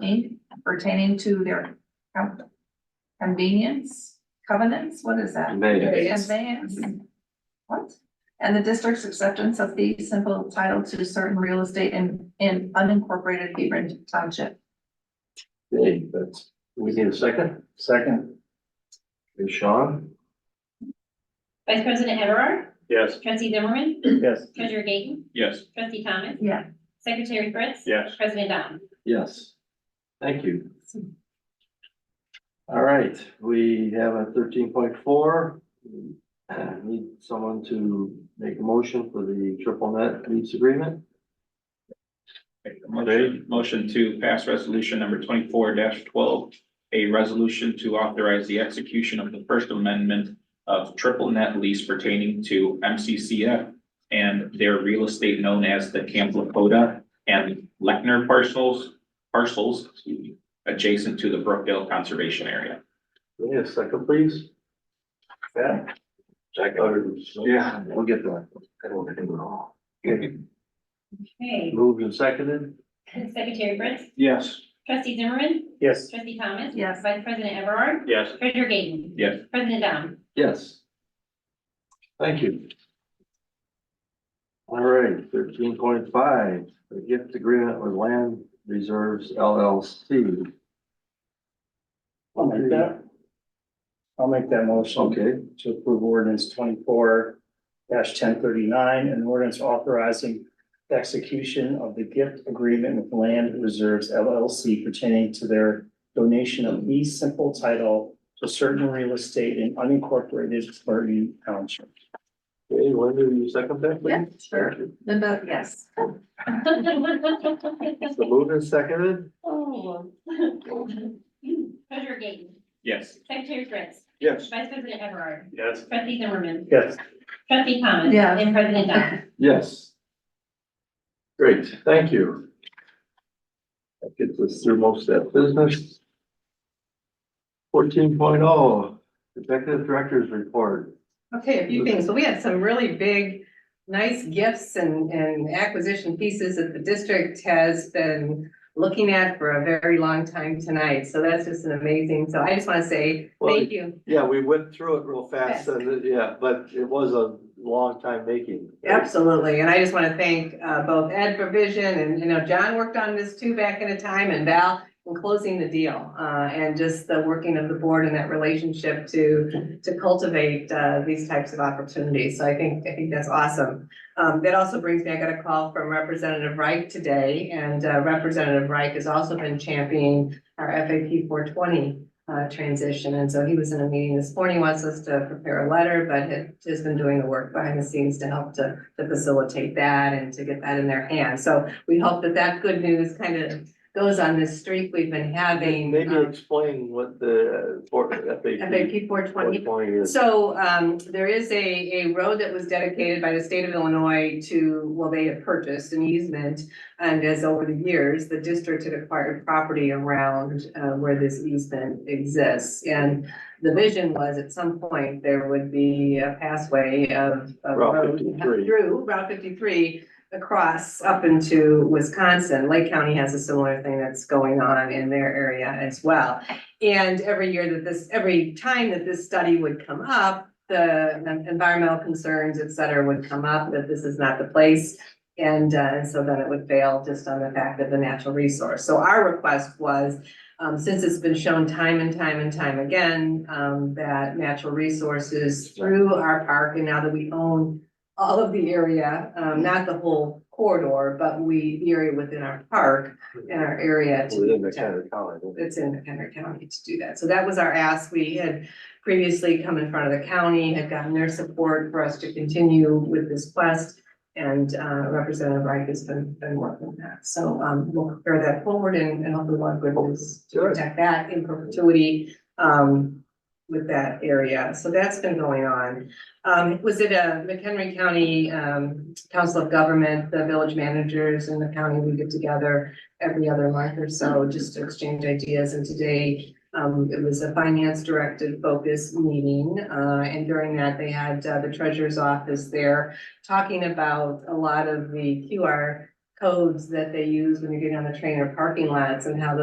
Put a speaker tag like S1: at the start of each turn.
S1: Inc. pertaining to their con- convenience, covenants, what is that?
S2: They,
S1: Conveyance? What? And the district's acceptance of the simple title to certain real estate in, in unincorporated Hebron Township.
S2: they, but we need a second? Second. Is Sean?
S3: Vice President Everard,
S4: Yes.
S3: trustee Zimmerman,
S4: Yes.
S3: treasurer Gayton,
S4: Yes.
S3: trustee Thomas,
S1: Yeah.
S3: secretary Fritz.
S4: Yes.
S3: President Dom.
S2: Yes. Thank you. All right, we have a thirteen point four. Need someone to make a motion for the triple net lease agreement.
S4: Motion, motion to pass resolution number twenty-four twelve, a resolution to authorize the execution of the First Amendment of triple net lease pertaining to MCCF and their real estate known as the Camp Lakota and Lechner parcels, parcels, excuse me, adjacent to the Brookdale Conservation Area.
S2: We Need a second, please? Yeah. Jack. Yeah, we'll get that. I don't want to do it all.
S3: Okay,
S2: Moved and seconded?
S3: secretary Fritz,
S4: Yes.
S3: trustee Zimmerman,
S4: Yes.
S3: trustee Thomas.
S1: Yes.
S3: Vice President Everard,
S4: Yes.
S3: treasurer Gayton.
S4: Yes.
S3: President Dom.
S2: Yes. Thank you. All right, thirteen point five, the gift agreement with Land Reserves LLC.
S5: I'll make that. I'll make that motion
S2: Okay,
S5: to approve ordinance twenty-four ten thirty-nine, an ordinance authorizing the execution of the gift agreement with Land Reserves LLC pertaining to their donation of the simple title to certain real estate in unincorporated Burton Township.
S2: okay, Linda, you second that,
S1: Yeah,
S2: please?
S1: sure. Linda, yes.
S2: So moved and seconded?
S3: Oh. Treasurer Gayton,
S4: Yes.
S3: secretary Fritz,
S4: Yes.
S3: vice president Everard,
S4: Yes.
S3: trustee Zimmerman,
S5: Yes.
S3: trustee Thomas.
S1: Yeah.
S3: And president Dom.
S2: Yes. Great, thank you. That gets us through most of that business. Fourteen oh, Executive Director's Report.
S6: Okay, a few things. So we had some really big, nice gifts and, and acquisition pieces that the district has been looking at for a very long time tonight. So that's just an amazing, so I just want to say
S2: Well,
S6: thank you.
S2: Yeah, we went through it real fast,
S6: Fast.
S2: and, yeah, but it was a long time making.
S6: Absolutely. And I just want to thank uh, both Ed for vision and, you know, John worked on this too back in a time and Val in closing the deal. Uh, and just the working of the board and that relationship to, to cultivate, uh, these types of opportunities. So I think, I think that's awesome. Um, that also brings me, I got a call from Representative Reich today and uh, Representative Reich has also been championing our FAP four twenty uh, transition. And so he was in a meeting this morning, wants us to prepare a letter, but had- has been doing the work behind the scenes to help to, to facilitate that and to get that in their hands. So we hope that that good news kind of goes on this streak we've been having.
S2: Maybe
S6: um,
S2: explain what the, for, FAP
S6: FAP four twenty
S2: twenty is.
S6: so um, there is a, a road that was dedicated by the state of Illinois to, well, they had purchased an easement. And as over the years, the district had acquired property around uh, where this easement exists. And the vision was at some point, there would be a passway of. of
S2: Route
S6: road
S2: 53.
S6: Through Route fifty-three across up into Wisconsin. Lake County has a similar thing that's going on in their area as well. And every year that this, every time that this study would come up, the environmental concerns, et cetera, would come up, that this is not the place. And, uh, and so then it would fail just on the fact of the natural resource. So our request was, um, since it's been shown time and time and time again, um, that natural resources through our park, and now that we own all of the area, um, not the whole corridor, but we, the area within our park, in our area to
S2: Within
S6: be
S2: the county
S6: protected
S2: college.
S6: it's in Henry County to do that. So that was our ask. We had previously come in front of the county, had gotten their support for us to continue with this quest. And uh, Representative Reich has been, been working on that. So um, we'll prepare that forward and, and hopefully we'll have good news to
S2: Sure.
S6: protect that in perpetuity um, with that area. So that's been going on. Um, was it a McHenry County um, Council of Government, the village managers and the county, we get together every other month or so, just to exchange ideas. And today, um, it was a finance directed focus meeting. Uh, and during that, they had uh, the treasurer's office there talking about a lot of the QR codes that they use when you're getting on the train or parking lots and how those